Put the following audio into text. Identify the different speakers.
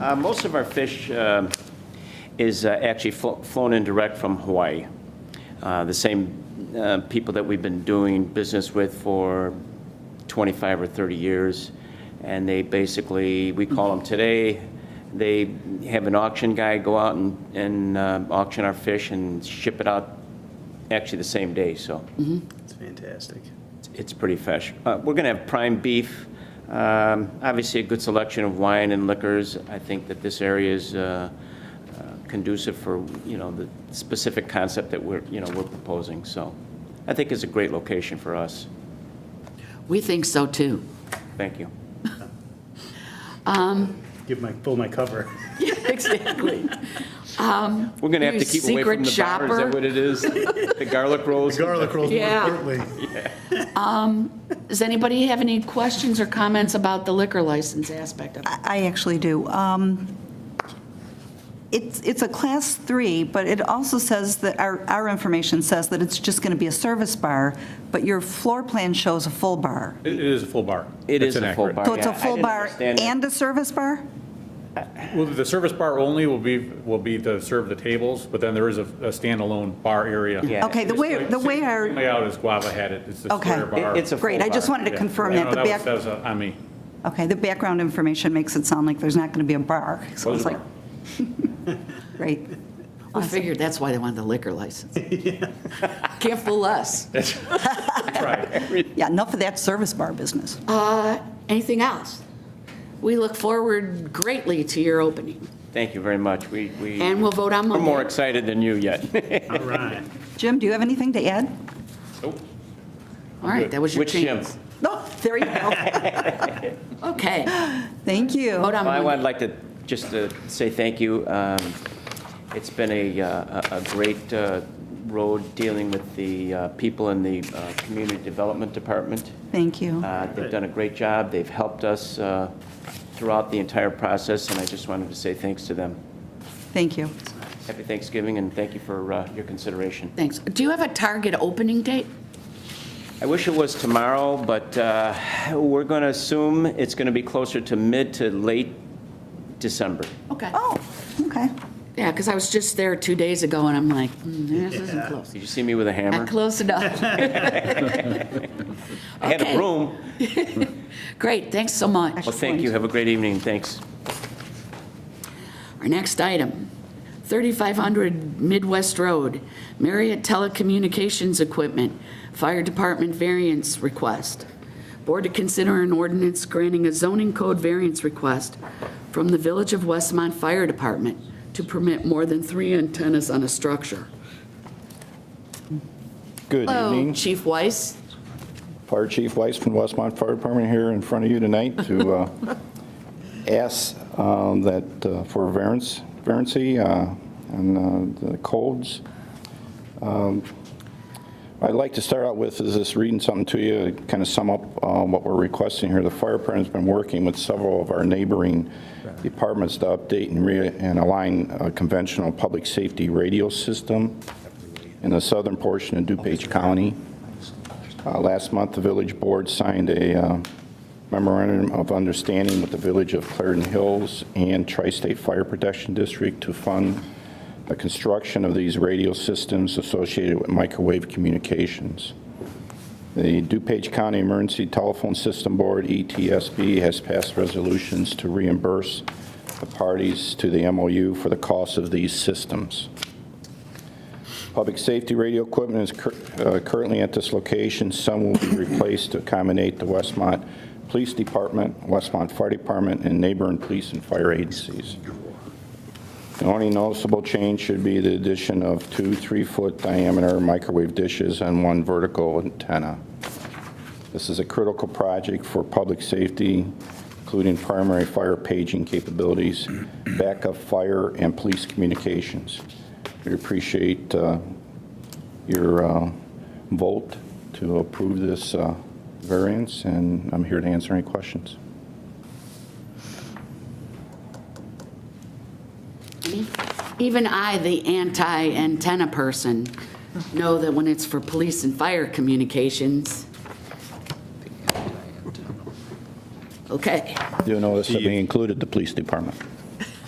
Speaker 1: Uh, Most of our fish um, is uh, actually flo- flown in direct from Hawaii. Uh, The same uh, people that we've been doing business with for 25 or 30 years. And they basically, we call them today, they have an auction guy go out and and uh, auction our fish and ship it out actually the same day, so.
Speaker 2: It's fantastic.
Speaker 1: It's pretty fresh. Uh, We're going to have prime beef, um, obviously a good selection of wine and liquors. I think that this area is uh, uh, conducive for, you know, the specific concept that we're, you know, we're proposing. So I think it's a great location for us.
Speaker 3: We think so too.
Speaker 1: Thank you.
Speaker 2: Give my, pull my cover.
Speaker 3: Exactly.
Speaker 1: We're going to have
Speaker 3: You
Speaker 1: to keep away from the bar,
Speaker 3: secret
Speaker 1: is
Speaker 3: shopper.
Speaker 1: that what it is? The garlic rolls?
Speaker 2: Garlic rolls more
Speaker 3: Yeah.
Speaker 2: importantly.
Speaker 3: Does anybody have any questions or comments about the liquor license aspect of it?
Speaker 4: I actually do. Um, It's, it's a Class 3, but it also says that, our, our information says that it's just going to be a service bar, but your floor plan shows a full bar.
Speaker 5: It it is a full bar.
Speaker 1: It
Speaker 5: That's
Speaker 1: is a full
Speaker 5: inaccurate.
Speaker 1: bar.
Speaker 4: So it's
Speaker 1: yeah.
Speaker 4: a
Speaker 1: I
Speaker 4: full
Speaker 1: didn't
Speaker 4: bar
Speaker 1: understand that.
Speaker 4: and a service bar?
Speaker 5: Well, the service bar only will be, will be to serve the tables, but then there is a a standalone bar area.
Speaker 1: Yeah.
Speaker 4: Okay, the way, the way our,
Speaker 5: Layout is Guava had it, it's the
Speaker 4: Okay.
Speaker 5: square bar.
Speaker 1: It- It's a full bar.
Speaker 4: great, I just wanted to
Speaker 5: Yeah.
Speaker 4: confirm
Speaker 5: Yeah,
Speaker 4: that.
Speaker 5: no,
Speaker 4: The
Speaker 5: was-
Speaker 4: back,
Speaker 5: That was uh, on me.
Speaker 4: okay, the background information makes it sound like there's not going to be a bar. So
Speaker 5: Was
Speaker 4: it's
Speaker 5: a
Speaker 4: like, great.
Speaker 3: We figured that's why they wanted the liquor license. Can't fool us.
Speaker 4: Yeah, enough of that service bar business.
Speaker 3: Anything else? We look forward greatly to your opening.
Speaker 1: Thank you very much. We, we.
Speaker 3: And we'll vote on
Speaker 1: We're more
Speaker 3: Monday.
Speaker 1: excited than you yet.
Speaker 2: All right.
Speaker 4: Jim, do you have anything to add?
Speaker 5: Oh.
Speaker 3: All right, that was your
Speaker 1: Which Jim?
Speaker 3: chance.
Speaker 4: No, there you go.
Speaker 3: Okay,
Speaker 4: Thank you.
Speaker 3: vote on
Speaker 1: Well, I
Speaker 3: Monday.
Speaker 1: would like to, just to say thank you. Um, It's been a, uh, a a great uh, road dealing with the uh, people in the uh, Community Development Department.
Speaker 4: Thank you.
Speaker 1: Uh, They've done a great job. They've helped us uh, throughout the entire process, and I just wanted to say thanks to them.
Speaker 4: Thank you.
Speaker 1: Happy Thanksgiving, and thank you for uh, your consideration.
Speaker 3: Thanks. Do you have a target opening date?
Speaker 1: I wish it was tomorrow, but uh, we're going to assume it's going to be closer to mid to late December.
Speaker 3: Okay.
Speaker 4: Oh, okay.
Speaker 3: Yeah, because I was just there two days ago, and I'm like, "Hmm, this isn't
Speaker 2: Yeah.
Speaker 3: close.
Speaker 1: Did you see me with a hammer?
Speaker 3: Not close enough.
Speaker 1: I had a
Speaker 3: Okay.
Speaker 1: broom.
Speaker 3: Great, thanks so much.
Speaker 1: Well, thank you. Have a great evening. Thanks.
Speaker 3: Our next item, 3500 Midwest Road, Marriott Telecommunications Equipment, Fire Department variance request. Board to consider an ordinance granting a zoning code variance request from the Village of Westmont Fire Department to permit more than three antennas on a structure.
Speaker 6: Good
Speaker 3: Hello,
Speaker 6: evening.
Speaker 3: Chief Weiss.
Speaker 6: Fire Chief Weiss from Westmont Fire Department here in front of you tonight to uh, ask um, that uh, for variance, variancy uh, on uh, the codes. Um, I'd like to start out with is just reading something to you, kind of sum up um, what we're requesting here. The fire department's been working with several of our neighboring departments to update and re, and align a conventional public safety radio system in the southern portion of DuPage County. Uh, Last month, the village board signed a uh, memorandum of understanding with the village of Clarendon Hills and Tri-State Fire Protection District to fund the construction of these radio systems associated with microwave communications. The DuPage County Emergency Telephone System Board, E ETSB, has passed resolutions to reimburse the parties to the MOU for the cost of these systems. Public safety radio equipment is cur- uh, currently at this location. Some will be replaced to accommodate the Westmont Police Department, Westmont Fire Department, and neighboring police and fire agencies. The only noticeable change should be the addition of two three-foot diameter microwave dishes and one vertical antenna. This is a critical project for public safety, including primary fire paging capabilities, backup fire, and police communications. We appreciate uh, your uh, vote to approve this uh, variance, and I'm here to answer any questions.
Speaker 3: Even I, the anti-antenna person, know that when it's for police and fire communications. Okay,
Speaker 6: Do you notice that we included the police department?